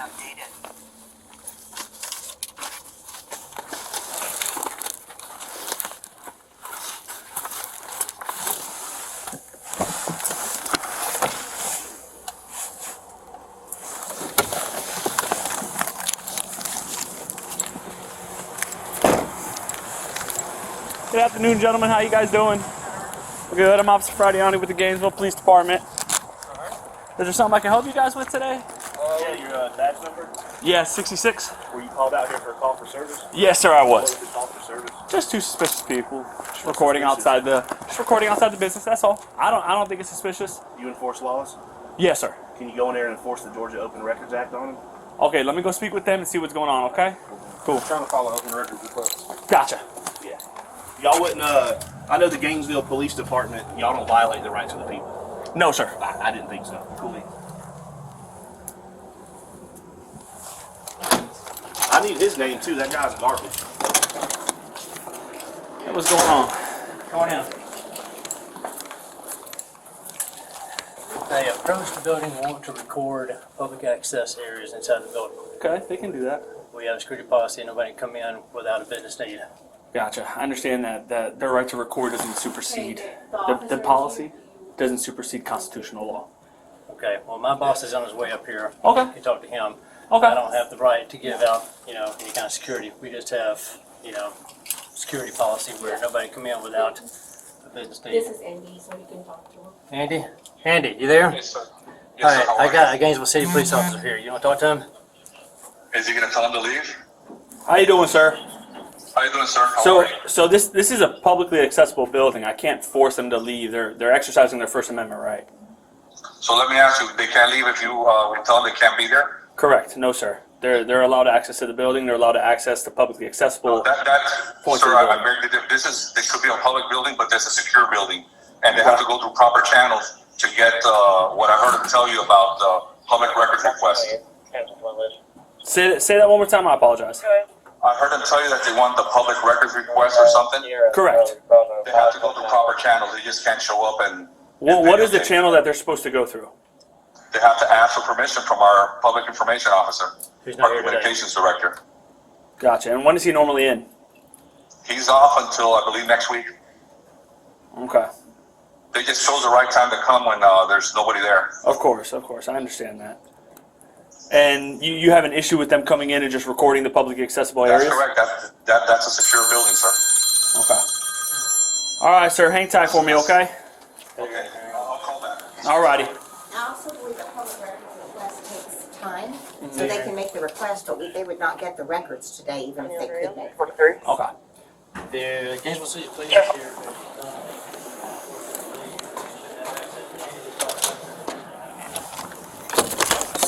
outdated. Good afternoon, gentlemen. How you guys doing? Good. I'm Officer Fradiani with the Gainesville Police Department. Is there something I can help you guys with today? Yeah, your uh, dad's number? Yeah, 66. Were you called out here for a call for service? Yes, sir, I What was was. the call for service? Just two suspicious people just recording outside the just recording outside the business. That's all. I don't I don't think it's suspicious. You enforce laws? Yes, sir. Can you go in there and enforce the Georgia Open Records Act on them? Okay, let me go speak with them and see what's going on. Okay. Cool. trying to follow open records request. Gotcha. Yeah. Y'all wouldn't, uh, I know the Gainesville Police Department, y'all don't violate the rights of the people. No, sir. I, I didn't think so. Cool. I need his name too. That guy's garbage. What's going on? Come on in. They approached the building and want to record public access areas inside the building. Okay, they can do that. We have a security policy, nobody can come in without a business need. Gotcha. I understand that that their right to record doesn't supersede the, The the officer- policy doesn't supersede constitutional law. Okay, well, my boss is on his way up here. Okay. You can talk to him. Okay. I don't have the right to give out, you know, any kind of security. We just have, you know, security policy where nobody can come in without a business This need. is Andy, so you can talk to him. Andy? Andy, you there? Yes, sir. All Yes, sir. right, How I are got a Gainesville City police officer here. You want to talk to him? you? Is he gonna tell him to leave? How you doing, sir? How you doing, sir? How So, are you? so this this is a publicly accessible building. I can't force them to leave. They're they're exercising their First Amendment right. So let me ask you, they can't leave if you, uh, we tell them they can't be there? Correct. No, sir. They're they're allowed access to the building. They're allowed to access to publicly accessible. That, that, Point sir, to the I, I building. beg to, this is, this could be a public building, but that's a secure building. And they have to go through proper channels to get, uh, what I heard him tell you about, uh, public records request. Say that- say that one more time. I apologize. I heard him tell you that they want the public records request or something. Correct. They have to go through proper channels. They just can't show up and. Well, and what is the videotape. channel that they're supposed to go through? They have to ask for permission from our public information officer, Who's not our here today. communications director. Gotcha. And when is he normally in? He's off until I believe next week. Okay. They just chose the right time to come when uh, there's nobody there. Of course, of course. I understand that. And you, you have an issue with them coming in and just recording the publicly accessible That's areas? correct. That's that, that's a secure building, sir. Okay. All right, sir. Hang tight for me, okay? Okay. I'll call back. All righty. Also, with the public records request takes time, so they can make the request, but we- they would not get the records today, even if they could make. Okay. The Gainesville City Police here.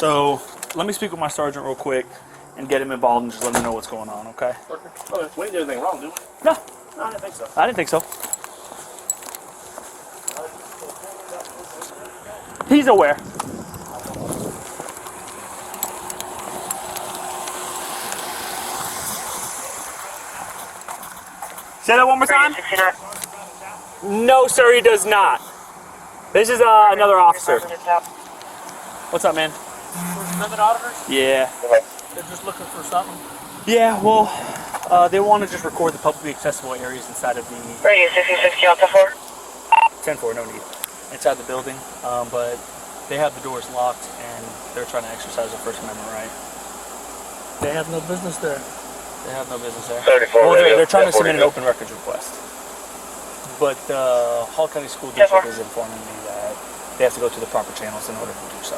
So let me speak with my sergeant real quick and get him involved and just let him know what's going on, okay? Oh, we didn't do anything wrong, did we? No, No, I didn't think so. I didn't think so. He's aware. Say that one more time. No, sir, he does not. This is uh, another officer. What's up, man? Amendment auditors, Yeah. they're just looking for something. Yeah, well, uh, they want to just record the publicly accessible areas inside of the Radio 66 Delta 4. 10 4, no need. Inside the building, um, but they have the doors locked and they're trying to exercise their First Amendment right. They have no business there. They have no business there. 34 Well, they're, radio, they're trying to 10-4 submit an radio. open records request. But the Hall County School District 10-4. is informing me that they have to go through the proper channels in order to do so.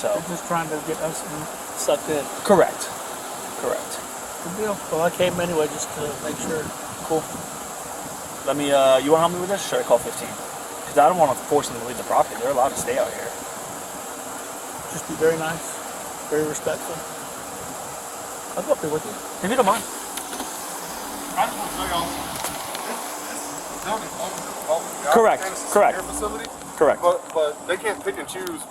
So, Just trying to get us in- sucked in. correct. Correct. Good deal. Well, I came anyway just to make sure. Cool. Let me, uh, you want to help me with this? Or should I call 15? Because I don't want to force them to leave the property. They're allowed to stay out here. Just be very nice, very respectful. I'll go up there with you. If you don't mind. Correct, correct. Facility, Correct. but, but they can't pick and choose